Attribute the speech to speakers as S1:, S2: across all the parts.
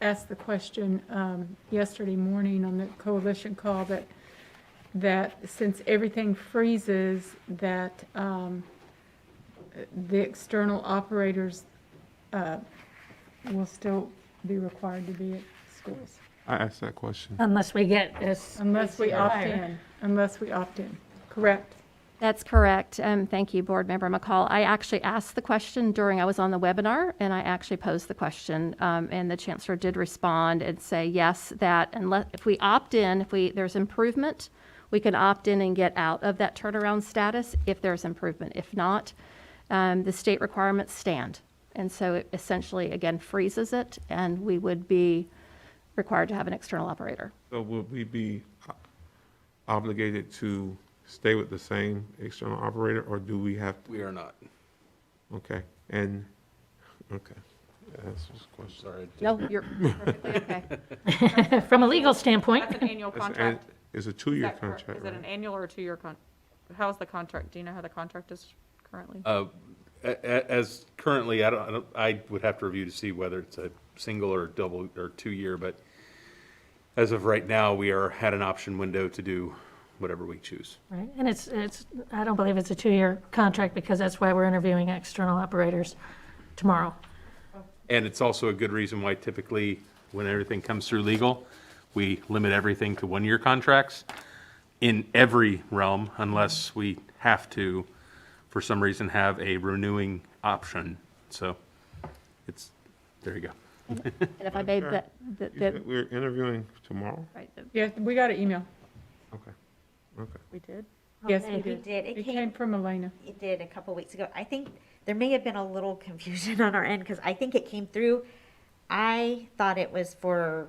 S1: asked the question um, yesterday morning on the coalition call that, that since everything freezes, that um, the external operators uh, will still be required to be at schools.
S2: I asked that question.
S3: Unless we get this.
S1: Unless we opt in, unless we opt in, correct?
S4: That's correct. Um, Thank you, Board Member McCall. I actually asked the question during, I was on the webinar, and I actually posed the question, um, and the Chancellor did respond and say, yes, that unless, if we opt in, if we, there's improvement, we can opt in and get out of that turnaround status if there's improvement. If not, um, the state requirements stand. And so it essentially, again, freezes it, and we would be required to have an external operator.
S2: So would we be obligated to stay with the same external operator, or do we have,
S5: We are not.
S2: okay, and, okay. That's just a question.
S5: Sorry.
S4: No, you're perfectly okay.
S3: From a legal standpoint,
S6: That's an annual
S2: It's an-
S6: contract.
S2: It's a
S6: Is
S2: two-year
S6: that correct?
S2: contract,
S6: Is it an
S2: right?
S6: annual or a two-year con, how's the contract? Do you know how the contract is currently?
S5: As currently, I don't- I don't, I would have to review to see whether it's a single or double or two-year, but as of right now, we are, had an option window to do whatever we choose.
S3: right, and it's, it's, I don't believe it's a two-year contract because that's why we're interviewing external operators tomorrow.
S5: And it's also a good reason why typically, when everything comes through legal, we limit everything to one-year contracts in every realm unless we have to, for some reason, have a renewing option. So it's, there you go.
S4: And if I made
S2: Sure.
S4: that, that-
S2: You
S4: that,
S2: said We're interviewing tomorrow?
S4: right, that-
S1: Yeah, we got an email.
S2: Okay, okay.
S6: We did.
S1: Yes, we
S3: Okay.
S1: did.
S7: did. It
S1: It
S7: came-
S1: came from Elena.
S7: it did a couple weeks ago. I think there may have been a little confusion on our end because I think it came through. I thought it was for,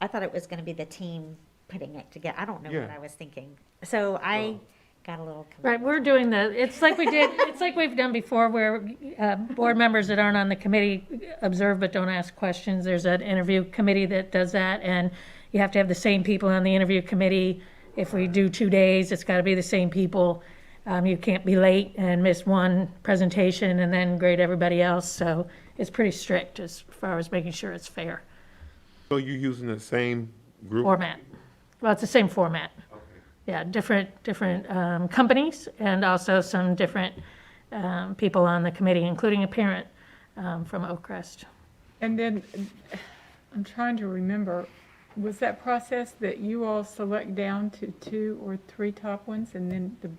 S7: I thought it was going to be the team putting it together. I don't know what
S2: Yeah.
S7: I was thinking. So I got a little confused.
S3: Right, we're doing the, it's like we did, it's like we've done before where uh, board members that aren't on the committee observe but don't ask questions. There's an interview committee that does that, and you have to have the same people on the interview committee. If we do two days, it's got to be the same people. Um, You can't be late and miss one presentation and then grade everybody else. So it's pretty strict as far as making sure it's fair
S2: So you're using the same group?
S3: format. Well, it's the same format. Yeah, different, different um, companies and also some different um, people on the committee, including a parent um, from Oak Crest.
S1: And then, I'm trying to remember, was that process that you all select down to two or three top ones and then the,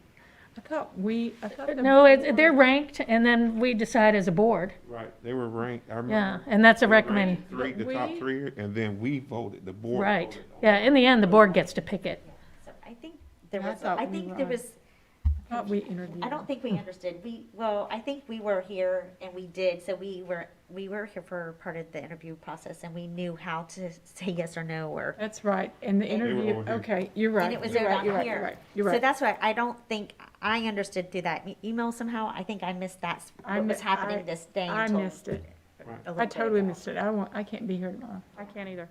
S1: I thought we, I thought. the-
S3: No, it- they're ranked and then we decide as a board.
S2: Right, they were ranked, I
S3: Yeah,
S2: remember.
S3: and that's a
S2: They were ranked
S3: recommend,
S2: Three, the top
S1: We-
S2: three, and then we voted, the board.
S3: right.
S2: voted.
S3: Yeah, in the end, the board gets to pick it.
S7: So I think there
S1: I
S7: was,
S1: thought
S7: I
S1: we
S7: think
S1: were
S7: there
S1: on-
S7: was,
S1: I thought we interviewed.
S7: I don't think we understood. We, well, I think we were here and we did, so we were, we were here for part of the interview process and we knew how to say yes or no or.
S1: That's right, and the
S2: were
S1: interview,
S2: over here.
S1: okay, you're right.
S7: And it was
S1: you're right,
S7: around
S1: you're right, You're
S7: here.
S1: right, you're
S7: So
S1: right.
S7: that's why I don't think, I understood through that e- email somehow. I think I missed that, s-
S1: I
S7: what
S1: mi-
S7: was happening
S1: I-
S7: this day.
S1: I
S7: until
S1: missed it.
S7: a little
S1: I
S7: bit
S1: totally
S7: ago.
S1: missed it. I won't, I can't be here tomorrow.
S6: I can't either.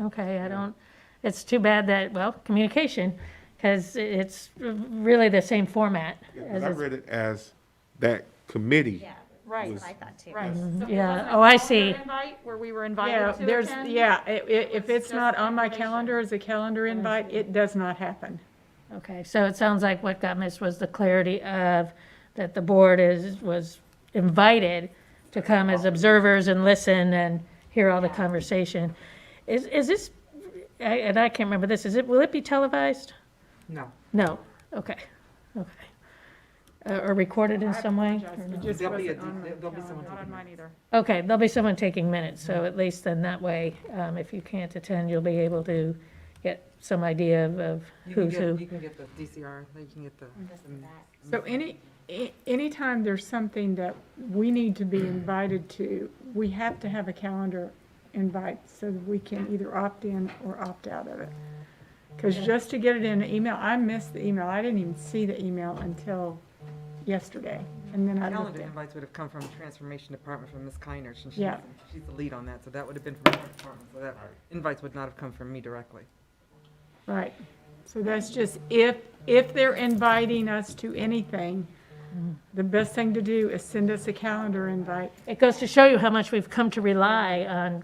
S3: Okay, I don't, it's too bad that, well, communication, because it's really the same format.
S2: Yeah, 'cause
S3: as
S2: I
S3: it's-
S2: read it as that committee.
S7: Yeah,
S6: Right.
S7: that's what I thought too.
S6: Right. So it
S3: yeah.
S6: wasn't
S3: Oh, I
S6: on your
S3: see.
S6: Invite where we were
S1: Yeah,
S6: invited to
S1: there's,
S6: attend?
S1: yeah, i- i- if
S6: was
S1: it's not
S6: just
S1: on my
S6: information.
S1: calendar as a calendar invite, it does not happen.
S3: Okay, so it sounds like what got missed was the clarity of that the board is, was invited to come as observers and listen and hear all the conversation. Is, is this, I- and I can't remember this, is it, will it be televised? No. No, okay, okay. Uh, Or recorded in some way? or no?
S1: Just
S8: There'll be a-
S1: wasn't on my
S8: there'll be
S1: calendar.
S8: someone
S6: Not on mine either.
S3: Okay, there'll be someone taking minutes, so at least then that way, um, if you can't attend, you'll be able to get some idea of- of
S8: You can
S3: who's
S8: get-
S3: who.
S8: You can get the DCR, you can get the.
S1: So any, a- anytime there's something that we need to be invited to, we have to have a calendar invite so that we can either opt in or opt out of it. Because just to get it in an email, I missed the email. I didn't even see the email until yesterday. And then I looked
S8: Calendar
S1: at,
S8: invites would have come from Transformation Department from Ms. Kiner, since she's,
S1: Yeah.
S8: she's the lead on that, so that would have been from the department, so that invites would not have come from me directly.
S1: right. So that's just, if, if they're inviting us to anything, the best thing to do is send us a calendar invite
S3: It goes to show you how much we've come to rely on